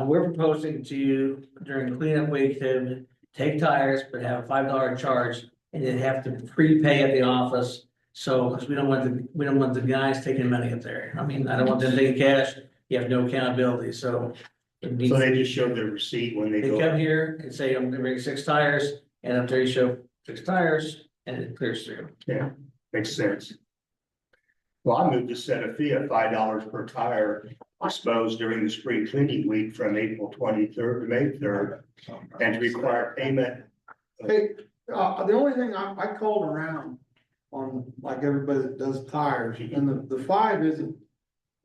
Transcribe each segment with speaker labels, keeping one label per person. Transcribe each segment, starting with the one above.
Speaker 1: Uh, we're proposing to during cleanup week to take tires, but have a five dollar charge. And then have to prepay at the office, so, because we don't want the, we don't want the guys taking money up there, I mean, I don't want them taking cash, you have no accountability, so. it needs-
Speaker 2: So they just showed their receipt when they
Speaker 1: They
Speaker 2: go,
Speaker 1: come here and say, I'm gonna bring six tires, and up there you show six tires, and it clears through.
Speaker 2: makes sense. Well, I moved to set a fee of five dollars per tire disposed during the spring cleaning week from April twenty-third to May third. And to require payment,
Speaker 3: Hey, uh, the only thing I, I called around on like everybody that does tires and the, the five isn't.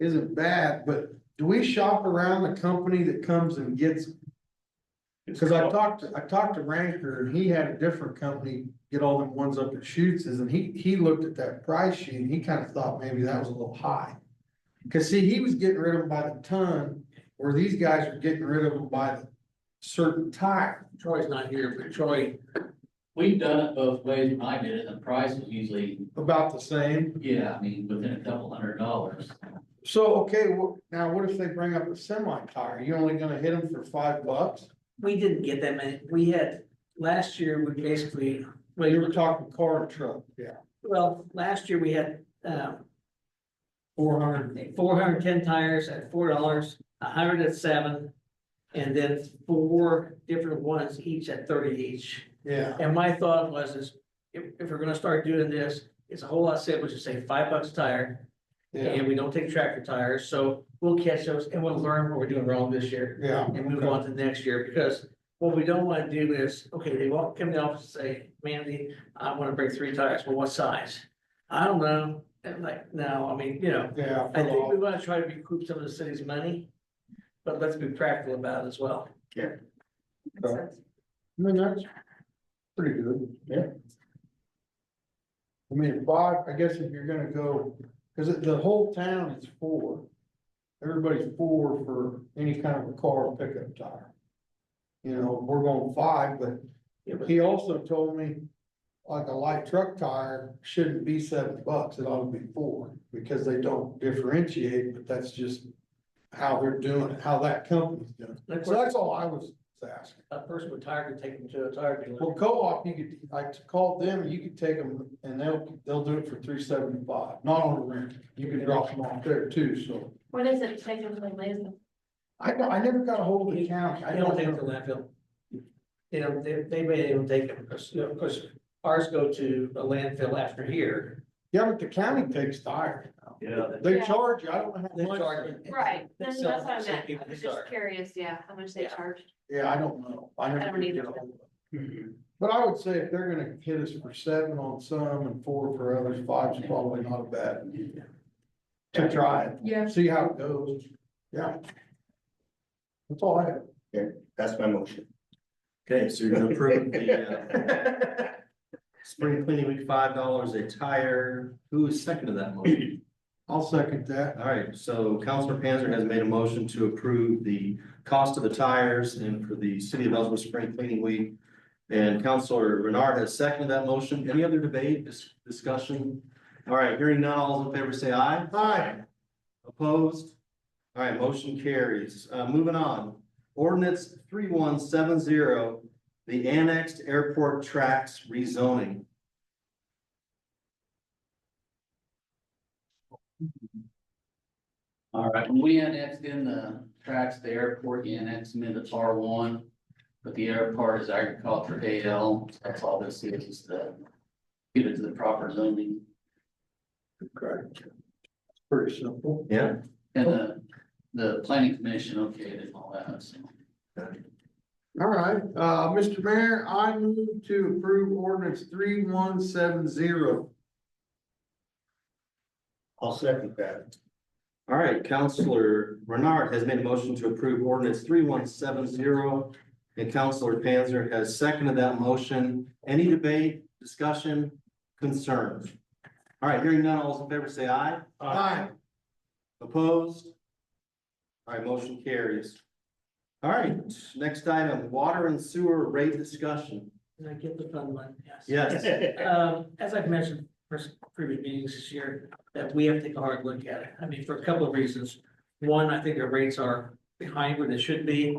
Speaker 3: Isn't bad, but do we shop around the company that comes and gets? them? Cause I talked, to- I talked to Ranker and he had a different company get all them ones up at Schutz and he, he looked at that price sheet and he kinda thought maybe that was a little high. Cause see, he was getting rid of them by the ton, where these guys are getting rid of them by the certain tire.
Speaker 1: Troy's not here, but Troy,
Speaker 4: We've done it both ways when I did it, and the price was usually,
Speaker 3: About the same.
Speaker 4: yeah, I mean, within a couple hundred dollars.
Speaker 3: So, okay, wh- now what if they bring up a semi tire? You only gonna hit them for five bucks?
Speaker 1: we didn't get that many, we had, last year, we basically, well, you
Speaker 3: You
Speaker 1: were
Speaker 3: were
Speaker 1: talking,
Speaker 3: talking car and truck, yeah.
Speaker 1: well, last year we had, um.
Speaker 3: Four hundred.
Speaker 1: four hundred ten tires at four dollars, hundred at seven. And then four different ones each at thirty each.
Speaker 3: Yeah,
Speaker 1: And my thought was is, if, if we're gonna start doing this, it's a whole lot simpler to say five bucks a tire.
Speaker 3: yeah,
Speaker 1: And we don't take tractor tires, so we'll catch those and we'll learn what we're doing wrong this year
Speaker 3: yeah.
Speaker 1: and move on to next year, because what we don't wanna do is, okay, they won't come to the office and say, Mandy, I wanna bring three tires, well, what size? I don't know, and like, no, I mean, you know,
Speaker 3: Yeah.
Speaker 1: I think we wanna try to recoup some of the city's money, but let's be practical about it as well.
Speaker 3: Makes sense. I mean, that's pretty good.
Speaker 2: Yeah.
Speaker 3: I mean, five, I guess if you're gonna go, cause it- the whole town is four. Everybody's four for any kind of a car or pickup tire. You know, we're going five, but
Speaker 1: Yeah, but
Speaker 3: He also told me, like a light truck tire shouldn't be seven bucks, it ought to be four, because they don't differentiate, but that's just. How they're doing it, how that company's doing it,
Speaker 1: That's
Speaker 3: so
Speaker 1: what
Speaker 3: that's all I was asking.
Speaker 1: a person with tire could take them to a tire dealer.
Speaker 3: Well, co-op, you could, I called them, you could take them, and they'll, they'll do it for three seventy-five, not on the rent, you can drop them off there too, so.
Speaker 5: What is it technically, Liz?
Speaker 3: I, don't- I never got a hold of the county, I
Speaker 1: They don't
Speaker 3: don't
Speaker 1: take them to
Speaker 3: know,
Speaker 1: landfill. You know, they, they may even take them, because, you know, 'cause ours go to a landfill after here.
Speaker 3: yeah, but the county takes tire,
Speaker 4: Yeah.
Speaker 3: they
Speaker 5: Yeah.
Speaker 3: charge you, I don't know
Speaker 1: They
Speaker 3: how much.
Speaker 1: charge it.
Speaker 5: Right,
Speaker 1: They
Speaker 5: then that's
Speaker 1: sell-
Speaker 5: what I
Speaker 1: sell
Speaker 5: meant,
Speaker 1: people
Speaker 5: I was
Speaker 1: the
Speaker 5: just
Speaker 1: car.
Speaker 5: curious, yeah, how much they
Speaker 1: Yeah.
Speaker 5: charge.
Speaker 3: Yeah, I don't know. I never
Speaker 5: I don't
Speaker 3: did
Speaker 5: either.
Speaker 3: get all of it.
Speaker 2: Mhm.
Speaker 3: But I would say if they're gonna hit us for seven on some and four for others, five's probably not a bad. idea. To try it.
Speaker 5: Yeah.
Speaker 3: See how it goes. Yeah. That's all I have.
Speaker 2: that's my motion.
Speaker 6: Okay, so you're gonna approve the, uh, spring cleaning week, five dollars a tire. Who is second to that motion?
Speaker 3: I'll second that.
Speaker 6: All right, so Councilor Panzer has made a motion to approve the cost of the tires and for the city of Ellsworth spring cleaning week. And Councilor Renard has seconded that motion. Any other debate, dis- discussion? All right, hearing none, all those in favor say aye.
Speaker 3: Aye.
Speaker 6: Opposed? All right, motion carries. Uh, moving on. Ordinance three one seven zero, the annexed airport tracks rezoning.
Speaker 4: All right, when we annexed in the tracks, the airport, you annexed them into R one. But the airport is agriculture AL, so that's all this is, is the, get it to the proper zoning.
Speaker 3: Correct. Pretty simple.
Speaker 6: Yeah,
Speaker 4: And the, the planning commission okayed it and all that, so.
Speaker 3: All right, uh, Mr. Mayor, I move to approve ordinance three one seven zero.
Speaker 2: I'll second that.
Speaker 6: All right, Counselor Renard has made a motion to approve ordinance three one seven zero. And Counselor Panzer has seconded that motion. Any debate, discussion, concerns? All right, hearing none, all those in favor say aye.
Speaker 3: Aye.
Speaker 6: Opposed? All right, motion carries. All right, next item, water and sewer rate discussion.
Speaker 1: Did I get the fun one? Yes.
Speaker 6: Yes,
Speaker 1: Um, as I've mentioned for s- previous meetings this year, that we have to take a hard look at it. I mean, for a couple of reasons. One, I think our rates are behind where they should be.